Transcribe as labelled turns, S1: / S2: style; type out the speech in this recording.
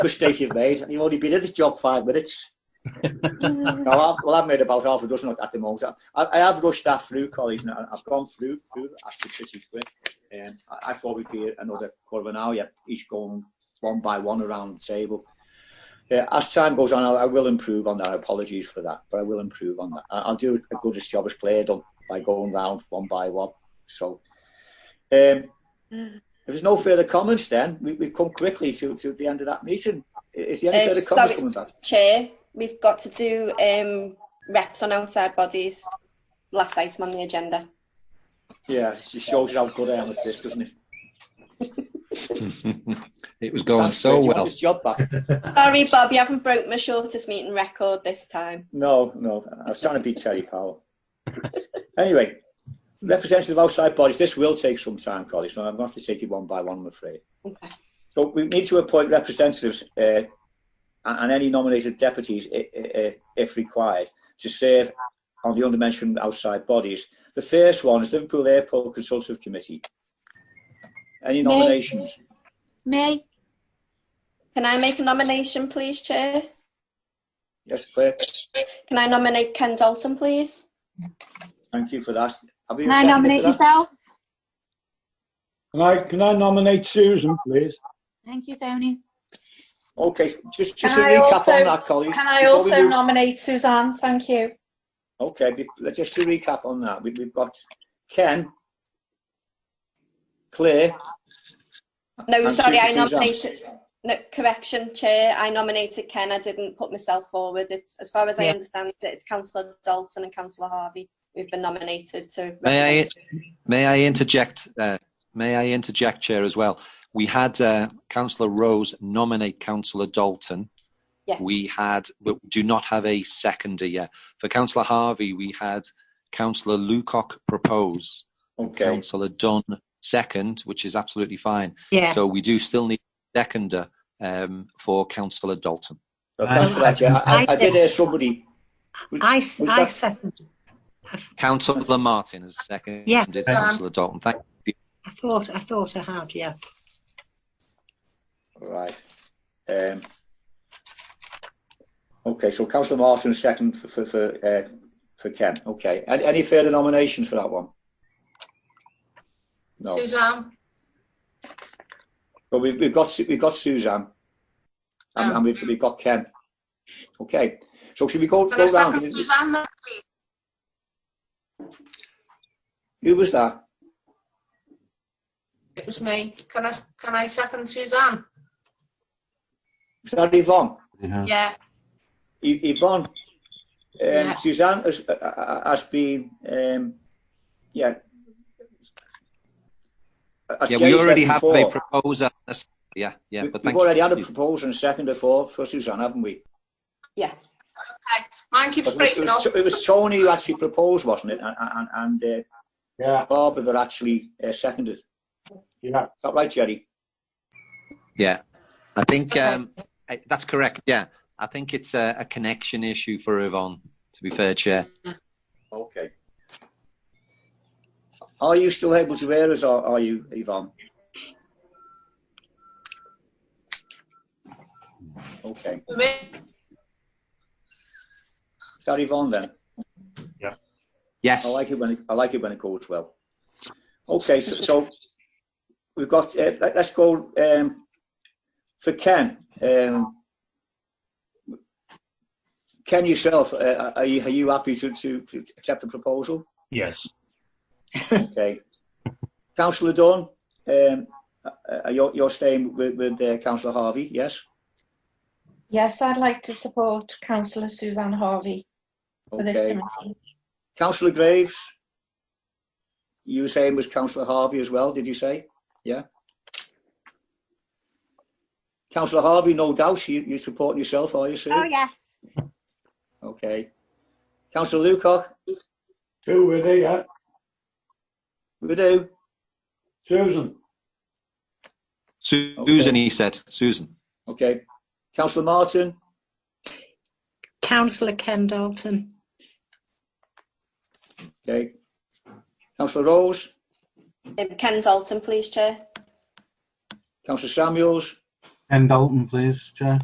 S1: mistake you've made. And you've only been in this job five minutes. no, I've, well, I've made about half a dozen at the moment. I, I have rushed that through, colleagues, and I- I've gone through through actually pretty quick. Um, I, I thought we'd be another quarter of an hour, yeah, each going one by one around the table. Yeah, as time goes on, I'll, I will improve on that. Apologies for that, but I will improve on that. I, I'll do a good as job as player done by going round one by one. So, um, if there's no further comments, then we, we come quickly to, to the end of that meeting. Is there any
S2: Um,
S1: further
S2: so
S1: comments coming
S2: it's-
S1: back?
S2: Chair, we've got to do um, reps on outside bodies. Last item on the agenda.
S1: Yeah, it just shows you how good I am at this, doesn't it?
S3: It was going
S1: Thanks,
S3: so
S1: Bridget.
S3: well.
S1: Just job back.
S2: Sorry, Bob, you haven't broke my shortest meeting record this time.
S1: No, no, I was trying to beat Terry Powell. anyway, representative outside bodies. This will take some time, colleagues, and I'm going to have to take it one by one, I'm afraid.
S2: Okay.
S1: So we need to appoint representatives uh, and and any nominated deputies, i- i- i- if required, to serve on the undermentioned outside bodies. The first one is Liverpool Airport Consultative Committee. Any
S4: Me.
S1: nominations?
S4: Me,
S2: Can I make a nomination, please, Chair?
S1: Yes, Claire.
S2: Can I nominate Ken Dalton, please?
S1: Thank you for that. Have you
S4: can I
S1: seconded for
S4: nominate
S1: that?
S4: myself?
S5: Can I, can I nominate Susan, please?
S4: Thank you, Tony.
S1: Okay, just, just a
S6: Can I
S1: recap
S6: also-
S1: on that, colleagues.
S6: Can I
S1: before we
S6: also
S1: move-
S6: nominate Suzanne? Thank you.
S1: Okay, be- let's just to recap on that. We, we've got Ken, Claire.
S6: Oh,
S2: No,
S1: and
S2: sorry,
S1: Susan-
S2: I
S1: Suzanne.
S2: nominated. No, correction, Chair. I nominated Ken. I didn't put myself forward. It's as far as I
S3: Yeah.
S2: understand it, it's Councillor Dalton and Councillor Harvey who've been nominated to.
S3: May I,
S2: represent-
S3: may I interject? Uh, may I interject, Chair, as well? We had uh, Councillor Rose nominate Councillor Dalton.
S2: Yeah.
S3: We had, but we do not have a seconder yet. For Councillor Harvey, we had Councillor Lucock propose,
S1: Okay,
S3: Councillor Dunn second, which is absolutely fine.
S4: Yeah.
S3: So we do still need a seconder um, for Councillor Dalton.
S1: well, thanks for that, Chair. I, I, I did hear somebody.
S7: I,
S1: Was
S7: I
S1: that-
S7: second.
S3: Councillor Martin has seconded
S7: Yeah.
S3: Councillor Dalton. Thank
S7: I thought I thought I had. Yeah.
S1: Right. Um, okay, so Councillor Martin second for for for, uh, for Ken. Okay. Any, any further nominations for that one? No.
S8: Suzanne,
S1: But we've, we've got Su- we've got Suzanne, and,
S8: Um.
S1: and we've, we've got Ken. Okay. So should we go
S8: can I
S1: go round?
S8: second Suzanne then, please?
S1: Who was that?
S8: It was me. Can I, can I second Suzanne?
S1: Was that Yvonne?
S8: Yeah,
S1: Y- Yvonne, um,
S8: Yeah.
S1: Suzanne has, uh, uh, has been, um, yeah. As
S3: Yeah,
S1: Jerry
S3: we
S1: said
S3: already have a
S1: before,
S3: proposal. Yeah, yeah,
S1: we-
S3: but
S1: We've
S3: thank
S1: already had a
S3: you.
S1: proposal and second for, for Suzanne, haven't we?
S8: mine keeps
S1: Because It
S8: breaking
S1: was,
S8: off.
S1: it was- it was Tony who actually proposed, wasn't it? And, and, and
S5: Yeah,
S1: uh, Barbara that actually uh, seconded. Is
S5: yeah.
S1: that right, Jerry?
S3: Yeah, I think
S8: Okay.
S3: um, I- that's correct. Yeah, I think it's a, a connection issue for Yvonne, to be fair, Chair.
S1: Okay. Are you still able to hear us, or are you, Yvonne? Okay. Is that Yvonne then?
S3: Yes.
S1: I like it when it, I like it when it goes well. Okay, so, so we've got. Uh, let, us go um, for Ken. Um, Ken yourself, uh, are you are you happy to, to, to accept the proposal?
S9: Yes.
S1: Okay, Councillor Dunn, um, uh, uh, you're, you're staying with, with uh, Councillor Harvey, yes?
S6: Yes, I'd like to support councillor Suzanne Harvey for this
S1: Okay,
S6: committee.
S1: Councillor Graves, you were saying was Councillor Harvey as well, did you say? Yeah. Councillor Harvey, no doubt, you, you're supporting yourself, are you, Sue?
S4: Oh yes.
S1: Okay. Councillor Lukoch,
S5: Who were they, yeah?
S1: we do.
S5: Susan?
S3: Su-
S1: Okay.
S3: Susan, he said. Susan.
S1: Okay. Councillor Martin,
S7: Councillor Ken Dalton.
S1: okay. Councillor Rose,
S2: Um, Ken Dalton, please, Chair.
S1: Councillor Samuels,
S9: Ken Dalton, please, Chair.